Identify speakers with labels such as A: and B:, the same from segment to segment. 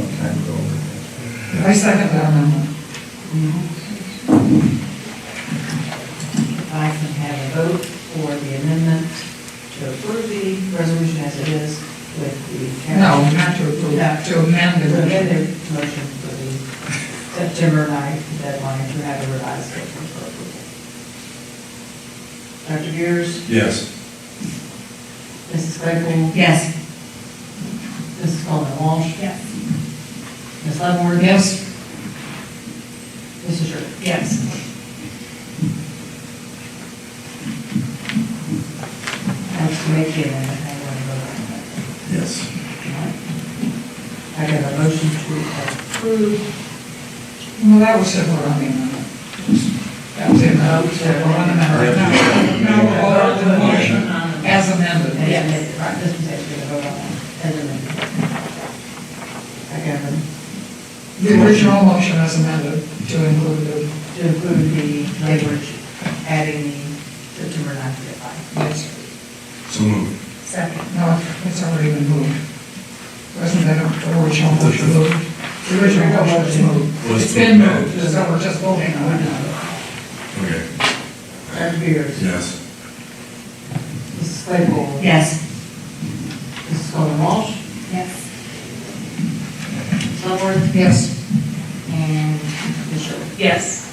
A: Oh,
B: I second that amendment.
C: If I can have a vote for the amendment to approve the resolution as it is with the. caveat-
B: No, not to approve, to amend the
C: To amend
B: motion.
C: the motion for the September 9th deadline to have a revised schedule for approval. Dr. Beers,
D: Yes.
C: Mrs. Claypool,
E: Yes.
C: Mrs. Coleman Walsh,
E: Yes.
C: Ms. Leavenworth.
B: Yes,
C: Mrs. Sherwood.
E: Yes.
C: That's to make it, and I want to vote on that.
D: Yes.
C: I got a motion to approve.
B: well, that was separate on the amendment. That was it, that was separate on the amendment. Now, now we'll vote on the motion as amended.
C: Yeah, right, this is actually a vote on that, as amended. I got a,
B: The original motion as amended to include the,
C: to include the language, adding the September ninth deadline.
B: yes,
D: So moved.
E: Second.
B: no, it's already been moved. Wasn't that the original motion moved? The original motion was moved.
D: Was
B: It's been
D: moved.
B: moved, so we're just voting on it now.
D: Okay.
C: Dr. Beers?
D: Yes.
C: Mrs. Claypool?
E: Yes.
C: Mrs. Coleman Walsh?
E: Yes.
C: Ms. Leavenworth?
B: Yes,
C: And Ms. Sherwood?
E: Yes.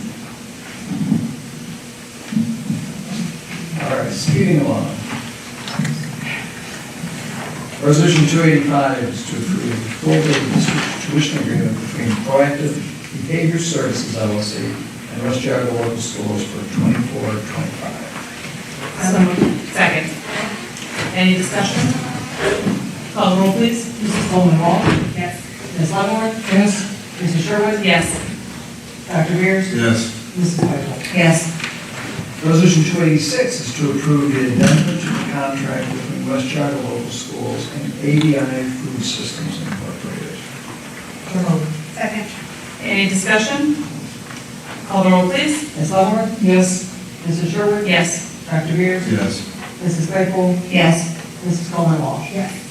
A: All right, speeding along. Resolution 285 is to approve the full day district tuition agreement between Proactive Behavior Services LLC and West Jago Local Schools for 24-25.
E: So moved. Second. Any discussion? Call the roll, please.
C: Mrs. Coleman Walsh?
E: Yes.
C: Ms. Leavenworth?
B: yes,
C: Mrs. Sherwood?
E: Yes.
C: Dr. Beers?
D: Yes.
C: Mrs. Claypool?
E: Yes.
A: Resolution 286 is to approve the amendment to the contract between West Jago Local Schools and ADI Food Systems Incorporated.
B: so moved.
E: Second. Any discussion? Call the roll, please.
C: Ms. Leavenworth?
B: yes,
C: Mrs. Sherwood?
E: Yes.
C: Dr. Beers?
D: Yes.
C: Mrs. Claypool?
E: Yes.
C: Mrs. Coleman Walsh?
E: Yes.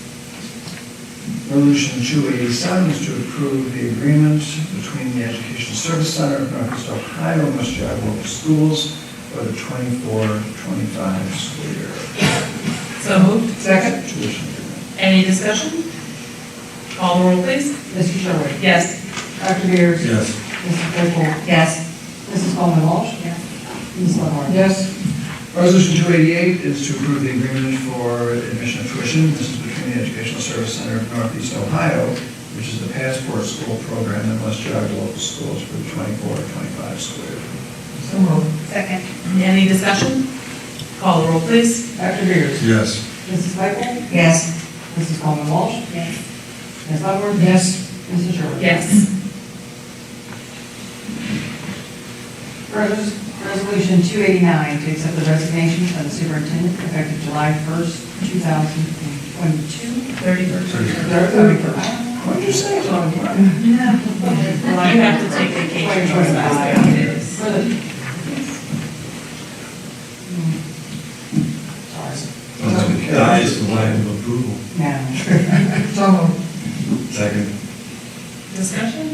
A: Resolution 287 is to approve the agreement between the Education Service Center of Northwest Ohio and West Jago Local Schools for the 24-25 school year
E: So moved.
B: second,
A: tuition agreement.
E: Any discussion? Call the roll, please.
C: Mr. Sherwood?
E: Yes.
C: Dr. Beers?
D: Yes.
C: Mrs. Claypool?
E: Yes.
C: Mrs. Coleman Walsh?
E: Yes.
C: Ms. Leavenworth?
B: yes,
A: Resolution 288 is to approve the agreement for admission of tuition. This is between the Educational Service Center of Northeast Ohio, which is the Passport School Program, and West Jago Local Schools for the 24-25 school year.
B: so moved.
E: Second. Any discussion? Call the roll, please.
C: Dr. Beers?
D: Yes.
C: Mrs. Claypool?
E: Yes.
C: Mrs. Coleman Walsh?
E: Yes.
C: Ms. Leavenworth?
B: yes,
C: Mrs. Sherwood?
E: Yes.
C: Res- Resolution 289 to accept the resignation of the superintendent effective July 1st, 2022.
E: Thirty-first.
A: What'd you say, Tony?
E: Well, I have to take vacation. so I don't do this.
C: For the... Hmm. Sorry.
D: That is the lack of approval.
C: No.
B: so moved.
D: Second.
E: Discussion?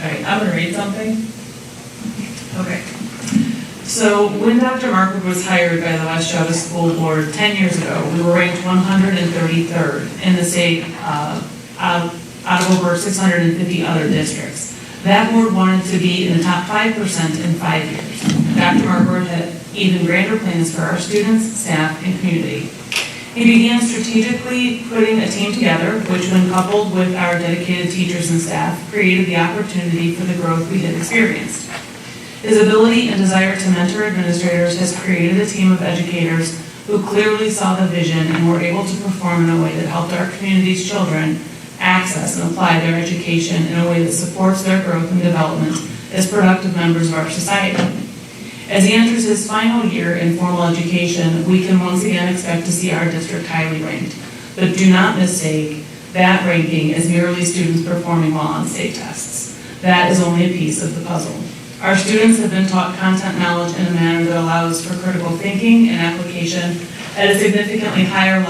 E: All right, I'm gonna read something. Okay. So when Dr. Markwood was hired by the West Java School Board ten years ago, we were ranked one hundred and thirty-third in the state, uh, out out of over six hundred and fifty other districts. That board wanted to be in the top five percent in five years. Dr. Markwood had even grander plans for our students, staff, and community. He began strategically putting a team together, which when coupled with our dedicated teachers and staff, created the opportunity for the growth we had experienced. His ability and desire to mentor administrators has created a team of educators who clearly saw the vision and were able to perform in a way that helped our community's children access and apply their education in a way that supports their growth and development as productive members of our society. As he enters his final year in formal education, we can once again expect to see our district highly ranked. But do not mistake that ranking as merely students performing well on state tests. That is only a piece of the puzzle. Our students have been taught content knowledge in a manner that allows for critical thinking and application at a significantly higher level.